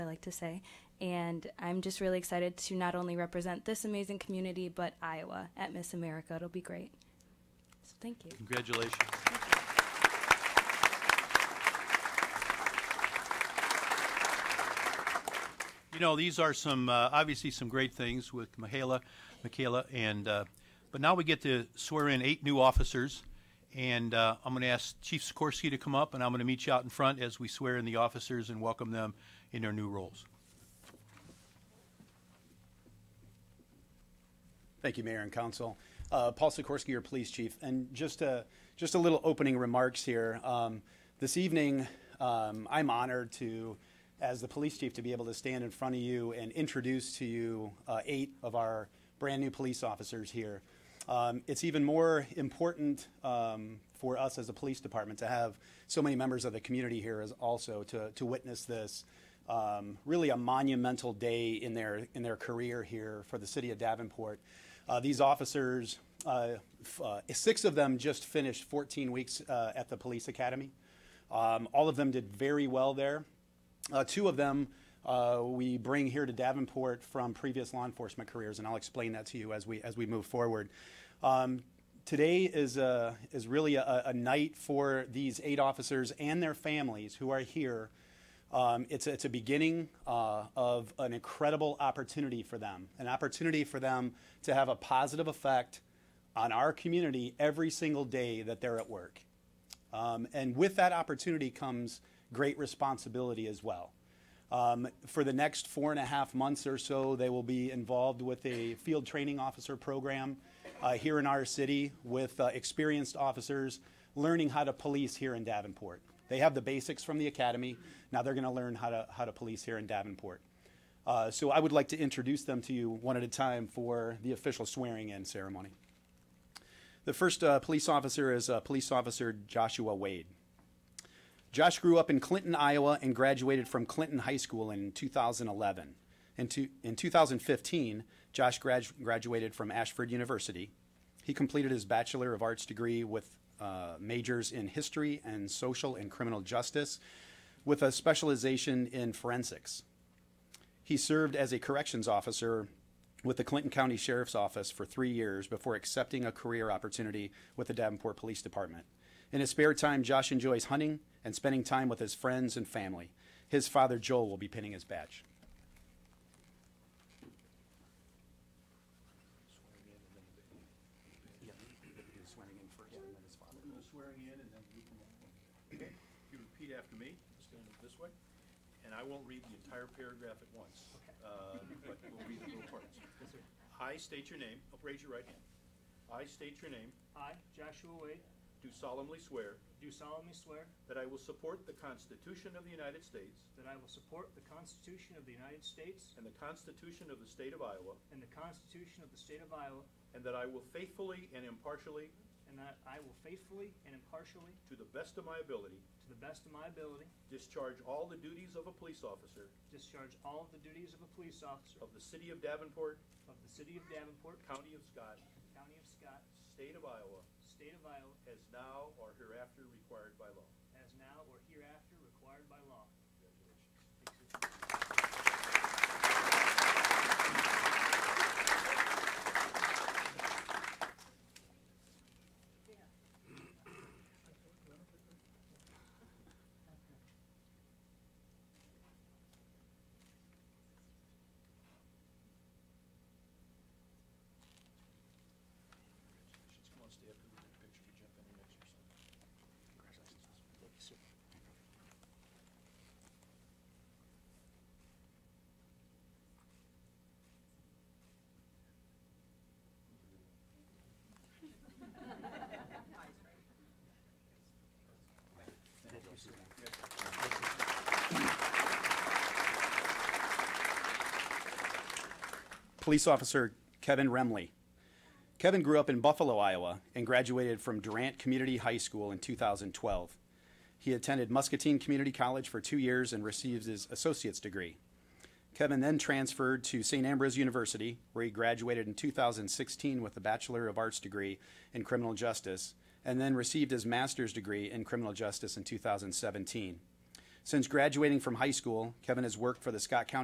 like to say. And I'm just really excited to not only represent this amazing community, but Iowa at Miss America. It'll be great. So thank you. Congratulations. You know, these are some, uh, obviously some great things with Michaela, Michaela, and, uh, but now we get to swear in eight new officers. And uh, I'm going to ask Chief Sikorsky to come up, and I'm going to meet you out in front as we swear in the officers and welcome them in their new roles. Thank you, Mayor and Council. Uh, Paul Sikorsky, your police chief, and just a just a little opening remarks here. Um, this evening, um, I'm honored to, as the police chief, to be able to stand in front of you and introduce to you uh, eight of our brand new police officers here. Um, it's even more important um, for us as a police department to have so many members of the community here as also to, to witness this um, really a monumental day in their in their career here for the city of Davenport. Uh, these officers, uh, f- uh, six of them just finished 14 weeks uh, at the police academy. Um, all of them did very well there. Uh, two of them uh, we bring here to Davenport from previous law enforcement careers, and I'll explain that to you as we as we move forward. Um, today is a, is really a, a night for these eight officers and their families who are here. Um, it's, it's a beginning uh, of an incredible opportunity for them, an opportunity for them to have a positive effect on our community every single day that they're at work. Um, and with that opportunity comes great responsibility as well. Um, for the next four and a half months or so, they will be involved with a field training officer program uh, here in our city with uh, experienced officers learning how to police here in Davenport. They have the basics from the academy. Now they're going to learn how to, how to police here in Davenport. Uh, so I would like to introduce them to you one at a time for the official swearing in ceremony. The first uh, police officer is uh, Police Officer Joshua Wade. Josh grew up in Clinton, Iowa, and graduated from Clinton High School in 2011. In, two, in 2015, Josh gradu- graduated from Ashford University. He completed his Bachelor of Arts degree with uh, majors in history and social and criminal justice, with a specialization in forensics. He served as a corrections officer with the Clinton County Sheriff's Office for three years before accepting a career opportunity with the Davenport Police Department. In his spare time, Josh enjoys hunting and spending time with his friends and family. His father, Joel, will be pinning his badge. swearing in, and then you can, you repeat after me, it's going to this way, and I won't read the entire paragraph at once, uh, but we'll read the little parts. I state your name, oh, raise your right hand. I state your name, I, Joshua Wade, do solemnly swear do solemnly swear that I will support the Constitution of the United States that I will support the Constitution of the United States and the Constitution of the State of Iowa, and the Constitution of the State of Iowa, and that I will faithfully and impartially, and that I will faithfully and impartially, to the best of my ability, to the best of my ability, discharge all the duties of a police officer discharge all of the duties of a police officer of the City of Davenport, of the City of Davenport, County of Scott, County of Scott, State of Iowa, State of Iowa, as now or hereafter required by law. as now or hereafter required by law. Congratulations. Come on, stay up and get a picture to jump in and exercise. Congratulations. Thank you, sir. Police Officer Kevin Remley. Kevin grew up in Buffalo, Iowa, and graduated from Durant Community High School in 2012. He attended Muscatine Community College for two years and received his associate's degree. Kevin then transferred to St. Ambrose University, where he graduated in 2016 with a Bachelor of Arts degree in criminal justice, and then received his master's degree in criminal justice in 2017. Since graduating from high school, Kevin has worked for the Scott County